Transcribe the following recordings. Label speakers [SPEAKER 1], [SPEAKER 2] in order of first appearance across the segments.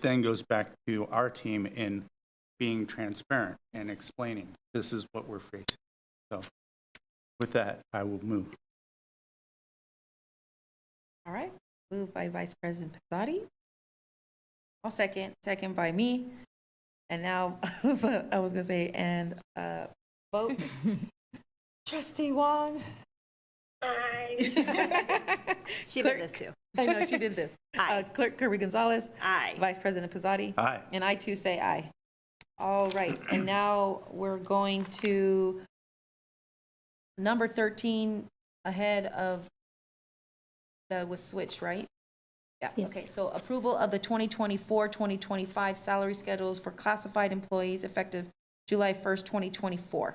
[SPEAKER 1] then goes back to our team in being transparent and explaining, this is what we're facing. So with that, I will move.
[SPEAKER 2] All right, moved by Vice President Pizzotti. I'll second, second by me. And now, I was gonna say, and, uh, vote. Trustee Wong. Aye.
[SPEAKER 3] She did this too.
[SPEAKER 2] I know, she did this. Uh,
[SPEAKER 3] Aye.
[SPEAKER 2] Clerk Kirby Gonzalez,
[SPEAKER 3] Aye.
[SPEAKER 2] Vice President Pizzotti.
[SPEAKER 1] Aye.
[SPEAKER 2] And I too say aye. All right, and now we're going to number 13 ahead of, that was switched, right? Yeah, okay, so approval of the 2024, 2025 salary schedules for classified employees effective July 1st, 2024.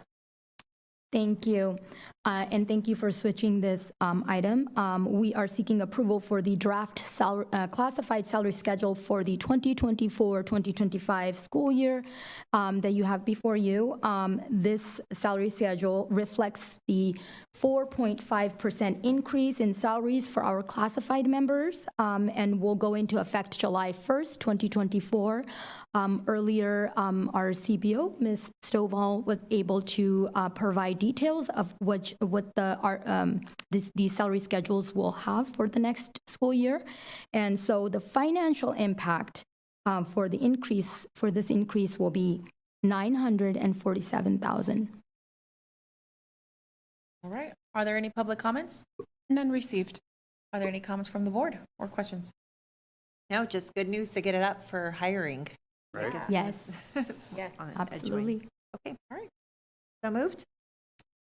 [SPEAKER 4] Thank you. Uh, And thank you for switching this um, item. Um, We are seeking approval for the draft sal- uh, classified salary schedule for the 2024-2025 school year um, that you have before you. Um, This salary schedule reflects the 4.5% increase in salaries for our classified members um, and will go into effect July 1st, 2024. Um, Earlier, um, our CBO, Ms. Stovall, was able to uh, provide details of which, what the, our, um, this- these salary schedules will have for the next school year. And so the financial impact uh, for the increase, for this increase will be 947,000.
[SPEAKER 2] All right, are there any public comments?
[SPEAKER 5] None received.
[SPEAKER 2] Are there any comments from the board or questions?
[SPEAKER 3] No, just good news to get it up for hiring.
[SPEAKER 1] Right.
[SPEAKER 3] Like as
[SPEAKER 4] Yes,
[SPEAKER 3] soon as-
[SPEAKER 2] Yes.
[SPEAKER 3] on a joint.
[SPEAKER 4] absolutely.
[SPEAKER 3] Okay, all right. So moved?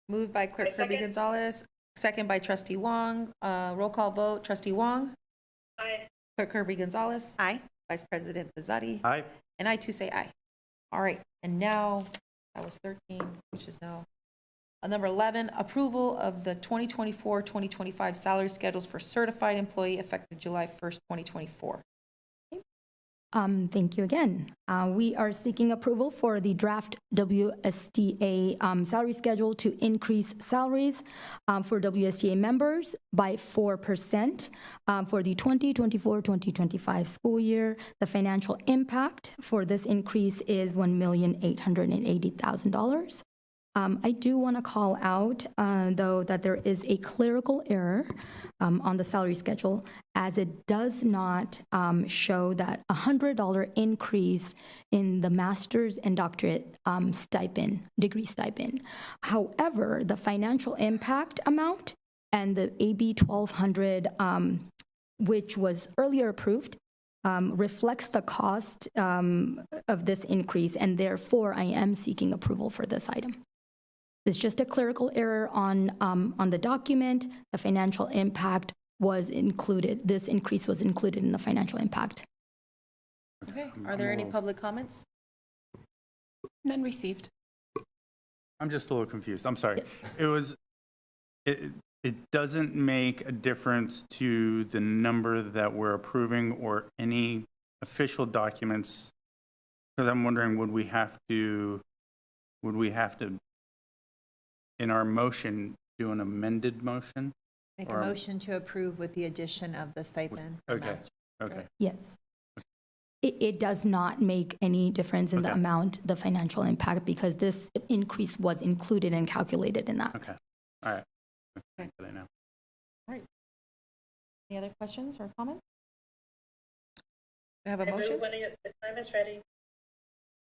[SPEAKER 2] Moved by Clerk Kirby Gonzalez, second by Trustee Wong. Uh, Roll call vote, Trustee Wong. Aye. Clerk Kirby Gonzalez.
[SPEAKER 3] Aye.
[SPEAKER 2] Vice President Bizetti.
[SPEAKER 1] Aye.
[SPEAKER 2] And I too say aye. All right, and now, that was 13, which is now uh, number 11, approval of the 2024-2025 salary schedules for certified employee effective July 1st, 2024.
[SPEAKER 4] Um, Thank you again. Uh, We are seeking approval for the draft WSTA um, salary schedule to increase salaries um, for WSTA members by 4% um, for the 2024-2025 school year. The financial impact for this increase is $1,880,000. Um, I do want to call out, uh, though, that there is a clerical error um, on the salary schedule, as it does not um, show that a $100 increase in the master's and doctorate um, stipend, degree stipend. However, the financial impact amount and the AB 1200 um, which was earlier approved, um, reflects the cost um, of this increase, and therefore I am seeking approval for this item. It's just a clerical error on, um, on the document. The financial impact was included, this increase was included in the financial impact.
[SPEAKER 2] Okay, are there any public comments?
[SPEAKER 5] None received.
[SPEAKER 1] I'm just a little confused. I'm sorry.
[SPEAKER 4] Yes.
[SPEAKER 1] It was, it, it doesn't make a difference to the number that we're approving or any official documents. Because I'm wondering, would we have to, would we have to, in our motion, do an amended motion?
[SPEAKER 3] Make a
[SPEAKER 1] Or-
[SPEAKER 3] motion to approve with the addition of the stipend. for
[SPEAKER 1] Okay,
[SPEAKER 3] master.
[SPEAKER 1] okay.
[SPEAKER 4] Yes. It, it does not make any difference in the
[SPEAKER 1] Okay.
[SPEAKER 4] amount, the financial impact, because this increase was included and calculated in that.
[SPEAKER 1] Okay, all right. Okay, I know.
[SPEAKER 2] Any other questions or comments? Do I have a motion?
[SPEAKER 6] the time is ready.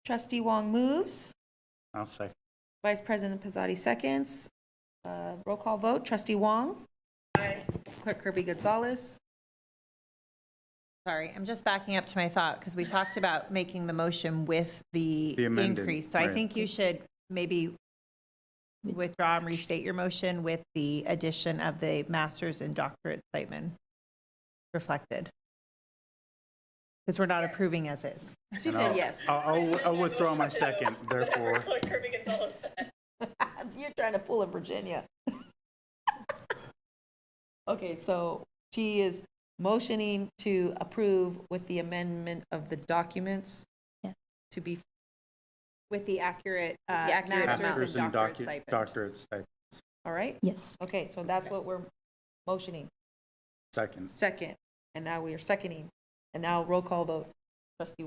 [SPEAKER 2] Trustee Wong moves.
[SPEAKER 1] I'll second.
[SPEAKER 2] Vice President Pizzotti seconds. Uh, Roll call vote, trustee Wong. Aye. Clerk Kirby Gonzalez.
[SPEAKER 3] Sorry, I'm just backing up to my thought because we talked about making the motion with the
[SPEAKER 1] The amended,
[SPEAKER 3] increase. So I
[SPEAKER 1] right.
[SPEAKER 3] think you should maybe withdraw and restate your motion with the addition of the master's and doctorate stipend reflected. Because we're not approving as is.
[SPEAKER 2] She said yes.
[SPEAKER 1] I'll, I'll- I'll withdraw my second, therefore.
[SPEAKER 6] Clerk Kirby Gonzalez said.
[SPEAKER 2] You're trying to pull a Virginia. Okay, so she is motioning to approve with the amendment of the documents
[SPEAKER 4] Yes.
[SPEAKER 2] to be,
[SPEAKER 3] With the accurate, uh,
[SPEAKER 2] With the accurate
[SPEAKER 3] master's
[SPEAKER 1] Masters and
[SPEAKER 3] and doctorate
[SPEAKER 1] docu-
[SPEAKER 3] stipend.
[SPEAKER 1] doctorate stipend,
[SPEAKER 2] all right?
[SPEAKER 4] Yes.
[SPEAKER 2] Okay, so that's what we're motioning,
[SPEAKER 1] second.
[SPEAKER 2] second, and now we are seconding. And now roll call vote. trustee